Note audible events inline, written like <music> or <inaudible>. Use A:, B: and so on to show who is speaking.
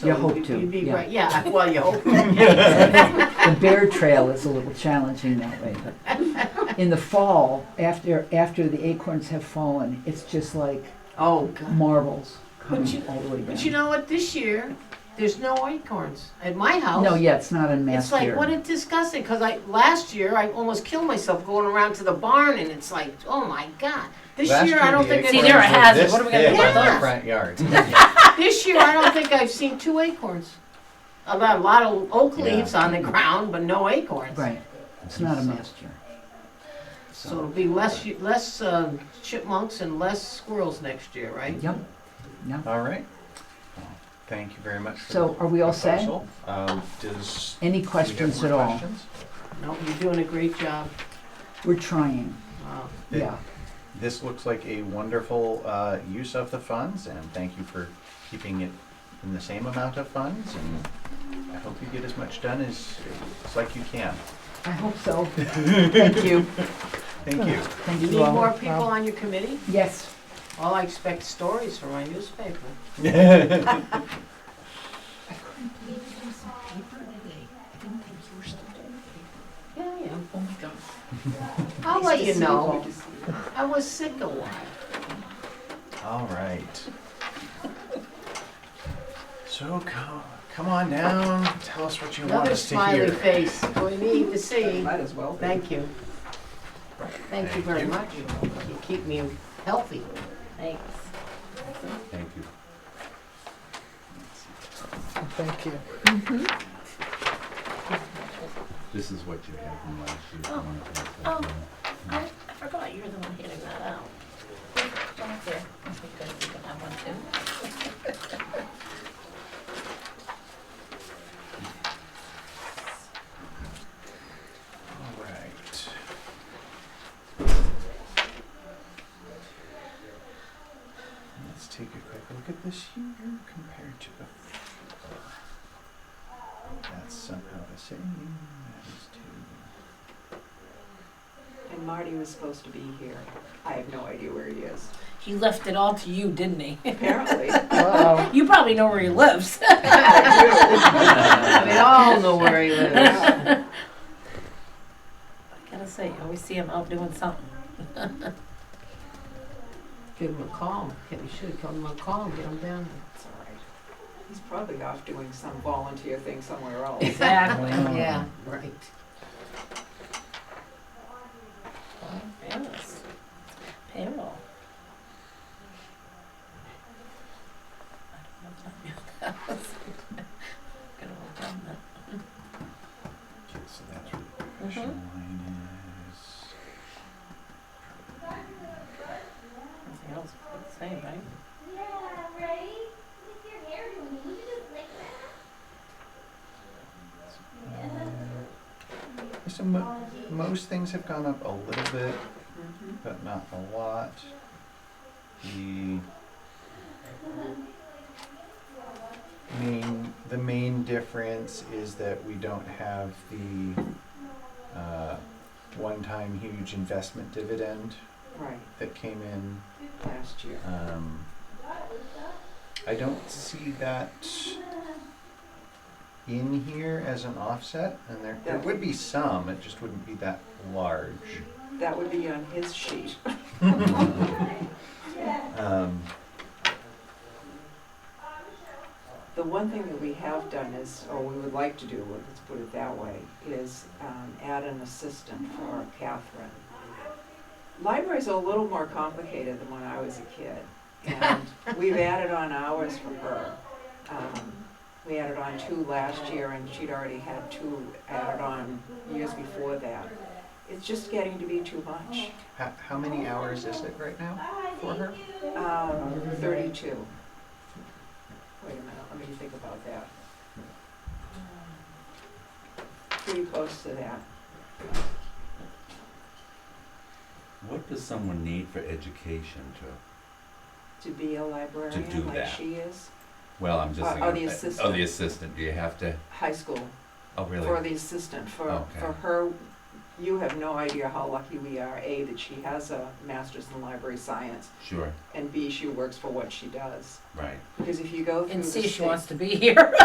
A: So
B: You hope
A: you'd-
B: to,
A: You'd be
B: yeah.
A: great, yeah, well, you <laughs> hope.
B: The bear trail is a little challenging that way, but in the fall, after, after the acorns have fallen, it's just like
A: Oh, God.
B: marbles
A: you-
B: coming all the way
A: But you
B: down.
A: know what, this year, there's no acorns at my house.
B: No, yeah, it's not in
A: It's
B: mass
A: like,
B: here.
A: what a disgusting, because I, last year, I almost killed myself going around to the barn, and it's like, oh my God. This
C: Last
A: year, I don't
C: the
A: think,
C: acorns
D: See, they're a
C: were
A: I've-
D: hazard.
C: this
D: What are we gonna do
C: thick
A: about
C: in the
A: those?
C: Front
B: <laughs>
A: <laughs>
C: yard.
A: this year, I don't think I've seen two acorns. I've got a lot of oak
C: Yeah.
A: leaves on the ground, but no acorns.
B: Right, it's not a mass here.
A: So it'll be less, less uh, chipmunks and less squirrels next year, right?
B: Yep,
C: All right. Well, Thank you very much. For
B: so are we all set?
C: proposal. Um, does do
B: Any
C: we have
B: questions
C: more
B: at all?
C: questions?
A: No, you're doing a great job.
B: We're trying,
A: Wow.
C: It-
B: yeah.
C: This looks like a wonderful uh, use of the funds, and thank you for keeping it in the same amount of funds. And I hope you get as much done as it's like you can.
B: I hope
C: <laughs>
B: so. Thank you. <laughs>
C: Thank you.
B: Thank
A: You need
B: you all.
A: more people on your committee?
B: Yes,
A: Well, I expect stories from my newspaper. Yeah, I am. Oh, my God. <laughs> I'll let you know. I was sick a while.
C: All right. So come, come on down. Tell us what you want
A: Another
C: us to hear.
A: smiley face. We need to see.
E: Might as well.
A: Thank you. Thank you very much. You keep me healthy.
D: Thanks.
C: Thank you.
E: Thank you.
F: This is what you had from last year.
D: Oh.
F: One of those.
D: Oh. I, I forgot you're the one handing that out. Don't there. Because you can have one too.
C: All right. Let's take a quick look at this year compared to the. That's somehow the same. That is two.
E: And Marty was supposed to be here. I have no idea where he
A: <laughs>
E: is.
D: He left it all to you, didn't he? <laughs>
E: Apparently.
A: <laughs>
B: Uh-oh.
D: You probably know where he lives. <laughs>
A: We all know where he lives.
E: Yeah.
D: I gotta say, I always see him out doing something.
A: Give him a call. Yeah, We should have him a call and get him down here.
E: It's all right. He's probably off doing some volunteer thing somewhere else.
D: <laughs> Exactly.
A: Yeah, right.
D: Yes. Payroll. <laughs> I don't know if I knew that was- Good old government.
C: Okay, so that's where the professional line is.
D: Everything else is the same, right?
G: Yeah, right? Look at your hair doing. Would you just like that?
C: So mo- most things have gone up a little bit, but not a lot. The main the main difference is that we don't have the uh, one-time huge investment dividend
E: Right,
C: that came in.
E: last year.
C: Um, I don't see that in here as an offset, and there, there would be some, it just wouldn't be that large.
E: That would be on his sheet.
C: Um,
E: The one thing that we have done is, or we would like to do, let's put it that way, is um, add an assistant for Catherine. Libraries are a little more complicated than when I was a kid, and we've added on hours for her. Um, We added on two last year, and she'd already had two added on years before that. It's just getting to be too much.
C: how, how many hours is it right now for her?
E: Um, Thirty-two. Wait a minute, let me think about that. Pretty close to that.
F: What does someone need for education to,
E: To be a
F: To do
E: librarian like
F: that.
E: she is,
F: well, I'm just
E: Uh,
F: thinking.
E: oh, the
F: uh, Oh,
E: assistant.
F: the assistant, do you have to,
E: high school,
F: oh,
E: for
F: really?
E: the assistant, for,
F: Okay.
E: for her you have no idea how lucky we are, A, that she has a master's in library science,
F: Sure,
E: and B, she works for what she does.
F: right.
E: Because if you go through
D: And
E: the
D: see if she
E: state-
D: wants to be <laughs> here.